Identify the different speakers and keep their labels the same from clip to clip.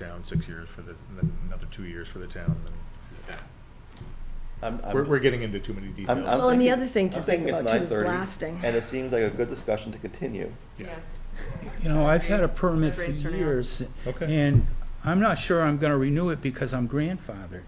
Speaker 1: down six years for this, and then another two years for the town, and
Speaker 2: I'm, I'm,
Speaker 1: we're, we're getting into too many
Speaker 2: I'm, I'm
Speaker 1: details.
Speaker 3: Well, and the
Speaker 2: thinking-
Speaker 3: other thing to
Speaker 2: I'm
Speaker 3: think
Speaker 2: thinking it's
Speaker 3: about, too, is
Speaker 2: 9:30,
Speaker 3: blasting.
Speaker 2: And it seems like a good discussion to continue.
Speaker 1: Yeah.
Speaker 4: You know, I've had a
Speaker 5: Right.
Speaker 4: permit for
Speaker 5: Everybody's turning off.
Speaker 4: years.
Speaker 1: Okay.
Speaker 4: And I'm not sure I'm gonna renew it because I'm grandfathered.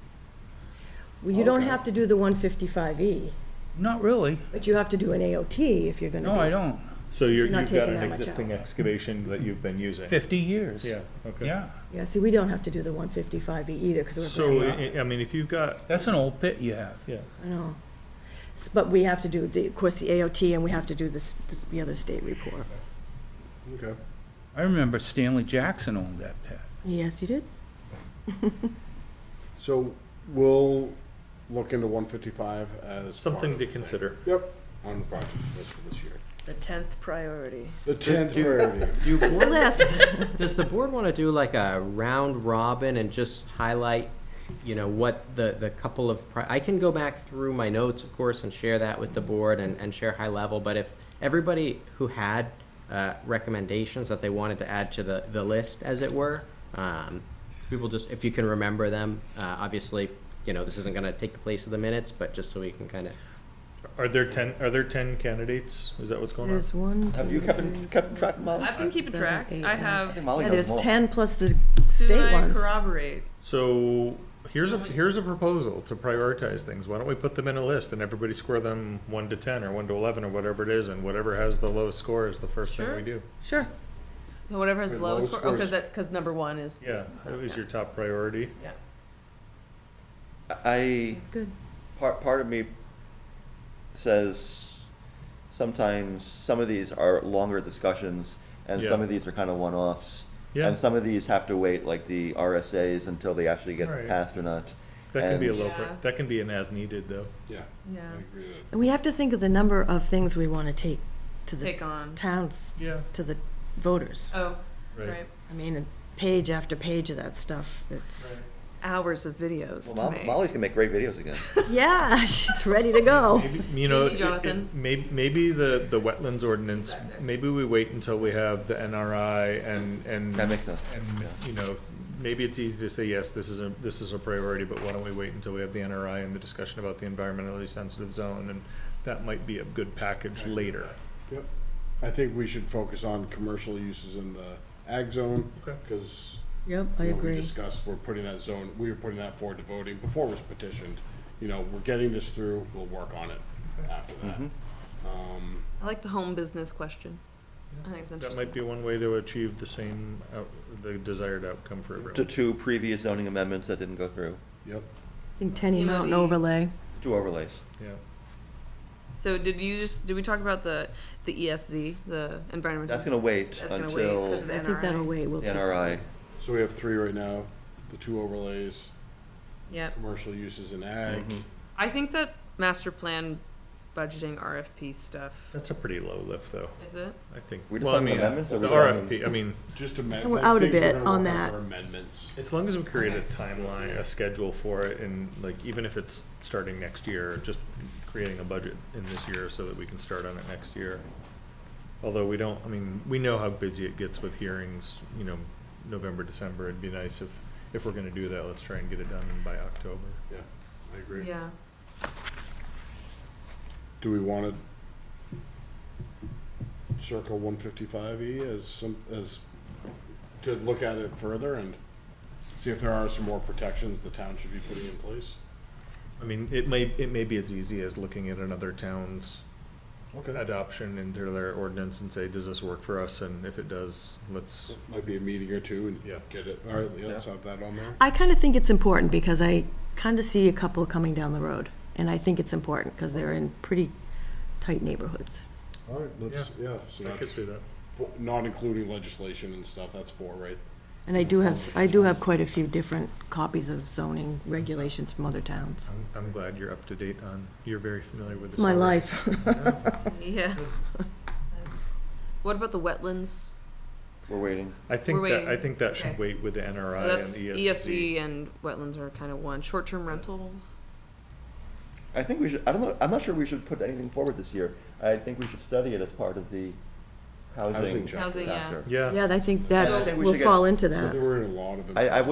Speaker 3: Well, you don't
Speaker 1: Okay.
Speaker 3: have to do the 155E,
Speaker 4: Not really.
Speaker 3: but you have to do an AOT if you're going to
Speaker 4: No, I don't.
Speaker 1: So you're,
Speaker 3: You're not
Speaker 1: you've got
Speaker 3: taking
Speaker 1: an
Speaker 3: that much
Speaker 1: existing
Speaker 3: out.
Speaker 1: excavation that you've been using?
Speaker 4: Fifty years.
Speaker 1: Yeah, okay.
Speaker 4: Yeah.
Speaker 3: Yeah, see, we don't have to do the 155E either, because we're.
Speaker 1: So,
Speaker 3: grandfathered.
Speaker 1: I, I mean, if you've got,
Speaker 4: That's an old pit you have.
Speaker 1: yeah,
Speaker 3: I know. S- But we have to do, the- of course, the AOT, and we have to do this, this- the other state report.
Speaker 6: Okay.
Speaker 4: I remember Stanley Jackson owned that pit.
Speaker 3: Yes, you did?
Speaker 6: So we'll look into one fifty-five as.
Speaker 1: something
Speaker 6: part
Speaker 1: to
Speaker 6: of the thing.
Speaker 1: consider.
Speaker 6: Yep, on the project list for this year.
Speaker 5: The tenth priority.
Speaker 6: The tenth priority.
Speaker 7: Do you
Speaker 3: The
Speaker 7: board,
Speaker 3: list.
Speaker 7: does the board want to do like a round robin and just highlight, you know, what the, the couple of, pri- I can go back through my notes, of course, and share that with the board and, and share high level, but if everybody who had uh, recommendations that they wanted to add to the, the list, as it were, um, people just, if you can remember them, uh, obviously, you know, this isn't going to take the place of the minutes, but just so we can kind of
Speaker 1: Are there ten, are there ten candidates? Is that what's going on?
Speaker 3: There's one,
Speaker 2: Have you
Speaker 3: two,
Speaker 2: kept, kept track, Molly?
Speaker 5: I've been keeping
Speaker 3: Seven,
Speaker 5: track.
Speaker 3: eight,
Speaker 5: I
Speaker 3: nine.
Speaker 5: have,
Speaker 2: Molly
Speaker 3: yeah,
Speaker 2: knows
Speaker 3: there's
Speaker 2: more.
Speaker 3: 10 plus the
Speaker 5: soon
Speaker 3: state
Speaker 5: I
Speaker 3: ones.
Speaker 5: corroborate.
Speaker 1: So, here's a, here's a proposal to prioritize things. Why don't we put them in a list and everybody score them one to ten or one to eleven or whatever it is, and whatever has the lowest score is the first thing
Speaker 5: Sure.
Speaker 1: we do?
Speaker 3: Sure.
Speaker 5: Whatever has the
Speaker 6: Wait,
Speaker 5: lowest
Speaker 6: lowest
Speaker 5: score, oh, because
Speaker 6: scores.
Speaker 5: that, because number one is.
Speaker 1: Yeah, that was your top priority.
Speaker 5: Yeah.
Speaker 2: I,
Speaker 3: That's good.
Speaker 2: part, part of me says sometimes some of these are longer discussions and some
Speaker 1: Yeah.
Speaker 2: of these are kind of one-offs.
Speaker 1: Yeah.
Speaker 2: And some of these have to wait, like the RSAs, until they actually get
Speaker 1: Right.
Speaker 2: passed or not.
Speaker 1: That can be a
Speaker 2: And-
Speaker 1: low, pri-
Speaker 5: Yeah.
Speaker 1: that can be an as needed though.
Speaker 6: Yeah.
Speaker 5: Yeah.
Speaker 6: I agree with
Speaker 3: And we have to think of the number of things we want to take to the
Speaker 5: Take on.
Speaker 3: towns,
Speaker 1: Yeah.
Speaker 3: to the voters.
Speaker 5: Oh,
Speaker 1: Right.
Speaker 5: right.
Speaker 3: I mean, and page after page of that stuff. It's,
Speaker 5: Hours of videos
Speaker 2: Well,
Speaker 5: to
Speaker 2: Mo-
Speaker 5: make.
Speaker 2: Molly's gonna make great videos again.
Speaker 3: yeah, she's ready to go.
Speaker 1: Maybe- You know,
Speaker 5: Maybe, Jonathan.
Speaker 1: maybe, maybe the, the wetlands ordinance, maybe we wait until we have the NRI and, and.
Speaker 2: That makes sense,
Speaker 1: And, you know, maybe it's easy to say, yes, this is a, this is a priority, but why don't we wait until we have the NRI and the discussion about the environmentally sensitive zone? And that might be a good package later.
Speaker 6: it. Yep. I think we should focus on commercial uses in the ag zone,
Speaker 1: Okay.
Speaker 6: because
Speaker 3: Yep, I
Speaker 6: We
Speaker 3: agree.
Speaker 6: discussed, we're putting that zone, we were putting that forward to voting before it was petitioned. You know, we're getting this through, we'll work on it after that.
Speaker 2: Mm-hmm.
Speaker 6: Um,
Speaker 5: I like the home business question. I think it's
Speaker 1: That
Speaker 5: interesting.
Speaker 1: might be one way to achieve the same, out- the desired outcome for
Speaker 2: To
Speaker 1: everyone.
Speaker 2: two previous zoning amendments that didn't go through,
Speaker 6: Yep.
Speaker 3: I think Tenny Mountain
Speaker 5: TMOD.
Speaker 3: overlay.
Speaker 2: two overlays.
Speaker 1: Yeah.
Speaker 5: So did you just, did we talk about the, the ESZ, the environmental?
Speaker 2: That's gonna wait
Speaker 5: That's gonna wait,
Speaker 2: until
Speaker 5: 'cause
Speaker 2: the
Speaker 5: the
Speaker 3: I think that'll
Speaker 5: NRI.
Speaker 3: wait. We'll take-
Speaker 2: NRI.
Speaker 6: So we have three right now, the two overlays,
Speaker 5: Yep.
Speaker 6: commercial uses in ag.
Speaker 5: I think that master plan budgeting RFP stuff,
Speaker 1: That's a pretty low lift though,
Speaker 5: is it?
Speaker 1: I think.
Speaker 2: We're just
Speaker 1: Well, I
Speaker 2: talking
Speaker 1: mean,
Speaker 2: amendments or
Speaker 1: The
Speaker 2: we're talking-
Speaker 1: RFP, I mean.
Speaker 6: Just amend.
Speaker 3: And we're out a
Speaker 6: things we're
Speaker 3: bit
Speaker 6: gonna
Speaker 3: on
Speaker 6: work on
Speaker 3: that.
Speaker 6: for Amendments.
Speaker 1: As long as we create a timeline, a schedule for it, and like, even if it's starting next year, just creating a budget in this year so that we can start on it next year. Although we don't, I mean, we know how busy it gets with hearings, you know, November, December, it'd be nice if, if we're gonna do that, let's try and get it done by October.
Speaker 6: Yeah, I agree.
Speaker 5: Yeah.
Speaker 6: Do we want to circle one fifty-five E as some, as, to look at it further and see if there are some more protections the town should be putting in place?
Speaker 1: I mean, it may, it may be as easy as looking at another town's adoption into their ordinance and say, does this work for us, and if it does, let's,
Speaker 6: Might be a meeting or two
Speaker 1: Yeah.
Speaker 6: and get it, all right, yeah, let's have that on there.
Speaker 3: I kind of think it's important because I kind of see a couple coming down the road. And I think it's important because they're in pretty tight neighborhoods.
Speaker 6: All right, let's, yeah, so
Speaker 1: I could
Speaker 6: that's,
Speaker 1: see that.
Speaker 6: fo- not including legislation and stuff, that's four, right?
Speaker 3: And I do have, s- I do have quite a few different copies of zoning regulations from other towns.
Speaker 1: I'm, I'm glad you're up to date on, you're very familiar with this.
Speaker 3: It's my
Speaker 1: already.
Speaker 3: life.
Speaker 5: Yeah. What about the wetlands?
Speaker 2: We're waiting.
Speaker 1: I think
Speaker 5: We're
Speaker 1: that, I
Speaker 5: waiting.
Speaker 1: think that
Speaker 5: Okay.
Speaker 1: should wait with the NRI
Speaker 5: So
Speaker 1: and E
Speaker 5: that's E
Speaker 1: the
Speaker 5: ESV
Speaker 1: ESC.
Speaker 5: and wetlands are kind of one. Short-term rentals.
Speaker 2: I think we should, I don't know, I'm not sure we should put anything forward this year. I think we should study it as part of the housing
Speaker 6: Housing
Speaker 2: chapter.
Speaker 6: chapter.
Speaker 5: Housing, yeah.
Speaker 1: Yeah.
Speaker 3: Yeah, I think
Speaker 2: I
Speaker 3: that
Speaker 2: think we
Speaker 3: will
Speaker 2: should get-
Speaker 3: fall into
Speaker 6: So
Speaker 3: that.
Speaker 6: there were a lot of.
Speaker 2: I, I would